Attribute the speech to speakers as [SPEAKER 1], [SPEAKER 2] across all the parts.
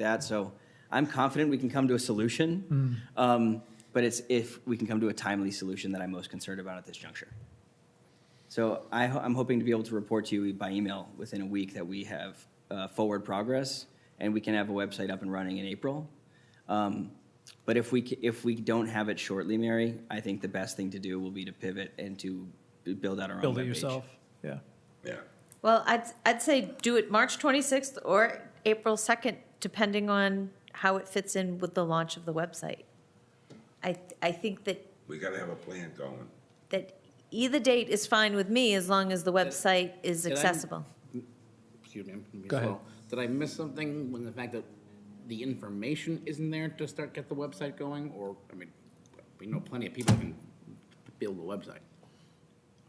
[SPEAKER 1] that. So I'm confident we can come to a
[SPEAKER 2] Mm.
[SPEAKER 1] solution. Um, But it's if we can come to a timely solution that I'm most concerned about at this juncture. So I, ho- I'm hoping to be able to report to you by email within a week that we have uh, forward progress and we can have a website up and running in April. Um, But if we, ca- if we don't have it shortly, Mary, I think the best thing to do will be to pivot and to build out our own
[SPEAKER 2] Build it
[SPEAKER 1] webpage.
[SPEAKER 2] yourself. Yeah.
[SPEAKER 3] Yeah.
[SPEAKER 4] Well, I'd, I'd say do it March 26th or April 2nd, depending on how it fits in with the launch of the website. I, I think that,
[SPEAKER 3] We gotta have a plan going.
[SPEAKER 4] that either date is fine with me as long as the website is
[SPEAKER 5] Did I-
[SPEAKER 4] accessible.
[SPEAKER 5] excuse me, I'm gonna be
[SPEAKER 2] Go ahead.
[SPEAKER 5] slow. Did I miss something when the fact that the information isn't there to start, get the website going, or, I mean, we know plenty of people can build a website.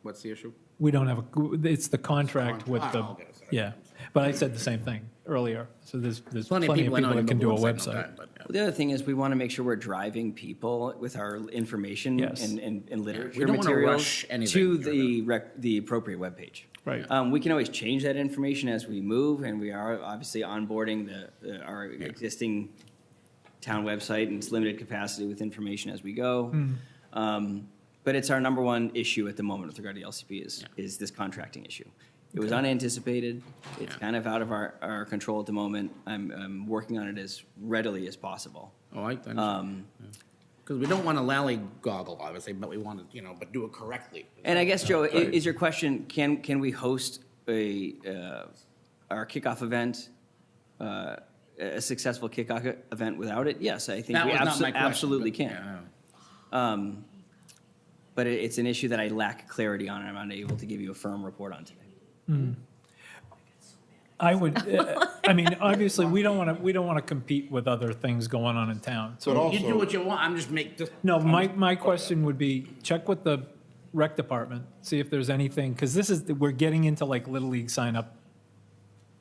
[SPEAKER 5] What's the issue?
[SPEAKER 2] We don't have, a. it's the contract with
[SPEAKER 5] Contract.
[SPEAKER 2] the,
[SPEAKER 5] Oh, okay, sorry.
[SPEAKER 2] yeah. But I said the same thing earlier. So there's, there's
[SPEAKER 5] Plenty of people I know
[SPEAKER 2] that can
[SPEAKER 5] can
[SPEAKER 2] do a
[SPEAKER 5] build
[SPEAKER 2] website.
[SPEAKER 5] website. no doubt, but, yeah.
[SPEAKER 1] Well, the other thing is we want to make sure we're driving people with our information
[SPEAKER 2] Yes.
[SPEAKER 1] and, and, and literature
[SPEAKER 5] don't wanna
[SPEAKER 1] materials
[SPEAKER 5] rush anything,
[SPEAKER 1] to
[SPEAKER 5] you
[SPEAKER 1] the rec, the appropriate webpage.
[SPEAKER 2] Right.
[SPEAKER 1] Um, we can always change that information as we move, and we are obviously onboarding the uh, our existing town website and its limited capacity with information as we go. Um, but it's our number one issue at the moment with regard to LCP is is this contracting issue. It was unanticipated. It's
[SPEAKER 5] Yeah.
[SPEAKER 1] kind of out of our, our control at the moment. I'm, I'm working on it as readily as possible. Um,
[SPEAKER 5] Oh, I,
[SPEAKER 2] Uh,
[SPEAKER 5] I, because we don't want to lollygoggle, obviously, but we want to, you know, but do it correctly.
[SPEAKER 1] And I guess, Joe, i- is your question, can, can we host a, uh, our kickoff event, uh, a successful kickoff event without it? Yes, I think
[SPEAKER 5] That
[SPEAKER 1] we
[SPEAKER 5] was not my
[SPEAKER 1] abso-
[SPEAKER 5] question,
[SPEAKER 1] absolutely
[SPEAKER 5] but-
[SPEAKER 1] can.
[SPEAKER 5] yeah,
[SPEAKER 1] But it- it's an issue that I lack clarity on, and I'm unable to give you a firm report on today.
[SPEAKER 2] I would, uh, I mean, obviously, we don't want to, we don't want to compete with other things going on in town. So,
[SPEAKER 6] But
[SPEAKER 5] yeah. You do
[SPEAKER 6] also,
[SPEAKER 5] what you want, I'm just make, just.
[SPEAKER 2] no, my, my question would be, check with the rec department, see if there's anything, because this is, we're getting into like Little League sign up,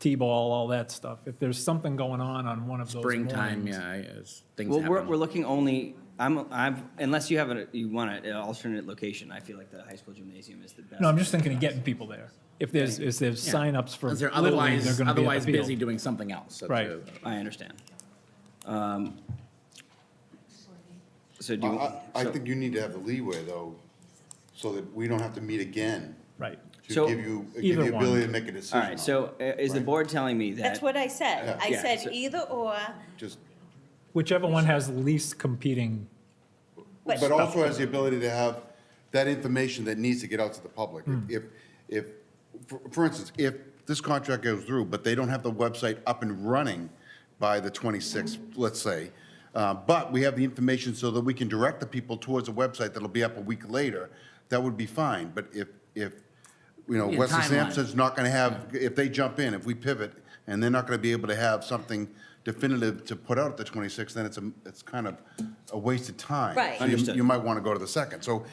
[SPEAKER 2] T-ball, all that stuff. If there's something going on on one of those
[SPEAKER 5] Springtime,
[SPEAKER 2] mornings-
[SPEAKER 5] yeah, I- it's- things
[SPEAKER 1] Well, we're, we're
[SPEAKER 5] happen.
[SPEAKER 1] looking only, I'm, I'm, unless you have a, you want an alternate location, I feel like the high school gymnasium is the best.
[SPEAKER 2] No, I'm just thinking of getting people there. If there's, if there's
[SPEAKER 5] Yeah.
[SPEAKER 2] signups for
[SPEAKER 5] Because they're
[SPEAKER 2] Little League, they're going
[SPEAKER 5] otherwise,
[SPEAKER 2] to be at
[SPEAKER 5] otherwise
[SPEAKER 2] the
[SPEAKER 5] busy
[SPEAKER 2] field.
[SPEAKER 5] doing something else. That's
[SPEAKER 2] Right.
[SPEAKER 5] a-
[SPEAKER 1] I understand. Um, So do
[SPEAKER 6] I,
[SPEAKER 1] you?
[SPEAKER 6] I- I
[SPEAKER 1] so-
[SPEAKER 6] think you need to have the leeway though, so that we don't have to meet again
[SPEAKER 2] Right.
[SPEAKER 1] So,
[SPEAKER 6] to give you, give
[SPEAKER 2] either
[SPEAKER 6] you
[SPEAKER 2] one.
[SPEAKER 6] ability to make a decision.
[SPEAKER 1] All right,
[SPEAKER 6] on
[SPEAKER 1] so uh, is the
[SPEAKER 6] right?
[SPEAKER 1] board telling me that? Uh-huh.
[SPEAKER 4] That's what I said. I
[SPEAKER 1] Yeah,
[SPEAKER 4] said
[SPEAKER 1] so-
[SPEAKER 4] either or,
[SPEAKER 6] it. Just,
[SPEAKER 2] Whichever one has the least competing,
[SPEAKER 4] But-
[SPEAKER 6] but also has the ability to have that information that needs to get out to the public. If, if, for- for instance, if this contract goes through, but they don't have the website up and running by the 26th, let's say, uh, but we have the information so that we can direct the people towards a website that'll be up a week later, that would be fine. But if, if, you know,
[SPEAKER 5] Yeah,
[SPEAKER 6] Wesley
[SPEAKER 5] timeline.
[SPEAKER 6] Sampson's not going to have, if they jump in, if we pivot, and they're not going to be able to have something definitive to put out at the 26th, then it's a, it's kind of a waste of time.
[SPEAKER 4] Right.
[SPEAKER 6] So you-
[SPEAKER 1] Understood.
[SPEAKER 6] You might want to go to the second. So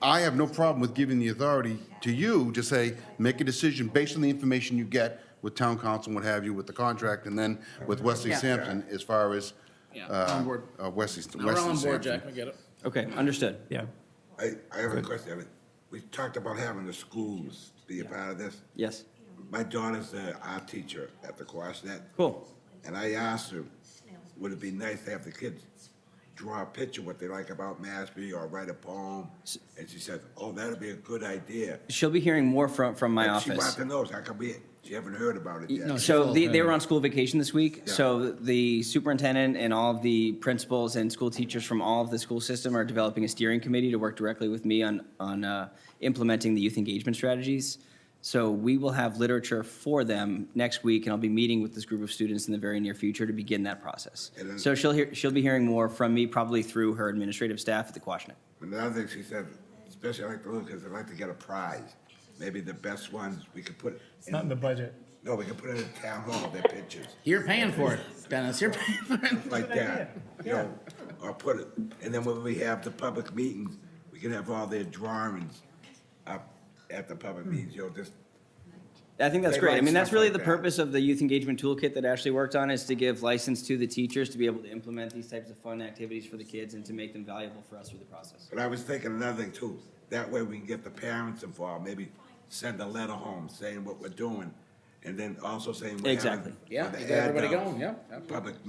[SPEAKER 6] I have no problem with giving the authority to you to say, make a decision based on the information you get with town council, and what have you, with the contract, and then with Wesley
[SPEAKER 4] Yeah.
[SPEAKER 6] Sampson as far as
[SPEAKER 5] Yeah, on
[SPEAKER 6] uh,
[SPEAKER 5] board.
[SPEAKER 6] uh, Wesley,
[SPEAKER 5] No, we're all
[SPEAKER 6] Wesley
[SPEAKER 5] on board,
[SPEAKER 6] Sampson.
[SPEAKER 5] Jack, we get it.
[SPEAKER 1] Okay, understood.
[SPEAKER 2] yeah.
[SPEAKER 3] I, I have a question. I mean, We talked about having the schools be a part of this.
[SPEAKER 1] Yes,
[SPEAKER 3] My daughter's a art teacher at the Quashnet.
[SPEAKER 1] cool.
[SPEAKER 3] And I asked her, would it be nice to have the kids draw a picture what they like about Mashpee or write a poem? And she said, oh, that'd be a good idea.
[SPEAKER 1] She'll be hearing more from, from my
[SPEAKER 3] And She wanted
[SPEAKER 1] office.
[SPEAKER 3] to know, so how come we, she haven't heard about it yet?
[SPEAKER 5] no, she-
[SPEAKER 1] So
[SPEAKER 5] She's
[SPEAKER 1] they,
[SPEAKER 5] all
[SPEAKER 1] they were
[SPEAKER 5] good.
[SPEAKER 1] on school vacation this week,
[SPEAKER 3] Yeah.
[SPEAKER 1] so the superintendent and all of the principals and school teachers from all of the school system are developing a steering committee to work directly with me on, on uh, implementing the youth engagement strategies. So we will have literature for them next week, and I'll be meeting with this group of students in the very near future to begin that process.
[SPEAKER 3] And then-
[SPEAKER 1] So she'll hear, she'll be hearing more from me, probably through her administrative staff at the Quashnet.
[SPEAKER 3] Another thing she said, especially I like to look, because I'd like to get a prize. Maybe the best ones, we could put. It's
[SPEAKER 2] Not in the budget.
[SPEAKER 3] No, we could put it in town hall, their pictures,
[SPEAKER 5] You're paying for it, Dennis, you're paying for it.
[SPEAKER 3] like that, you know, or put it, and then when we have the public meetings, we can have all their drawings up at the public meetings, you know, just,
[SPEAKER 1] I think that's
[SPEAKER 3] They
[SPEAKER 1] great. I
[SPEAKER 3] like
[SPEAKER 1] mean, that's
[SPEAKER 3] stuff
[SPEAKER 1] really
[SPEAKER 3] like
[SPEAKER 1] the
[SPEAKER 3] that.
[SPEAKER 1] purpose of the youth engagement toolkit that Ashley worked on is to give license to the teachers to be able to implement these types of fun activities for the kids and to make them valuable for us through the process.
[SPEAKER 3] but I was thinking another thing too. That way we can get the parents involved, maybe send a letter home saying what we're doing, and then also saying. we're having-
[SPEAKER 1] Exactly.
[SPEAKER 5] Yeah,
[SPEAKER 3] for the
[SPEAKER 5] you got everybody
[SPEAKER 3] adults,
[SPEAKER 5] going, yeah, absolutely.
[SPEAKER 3] Public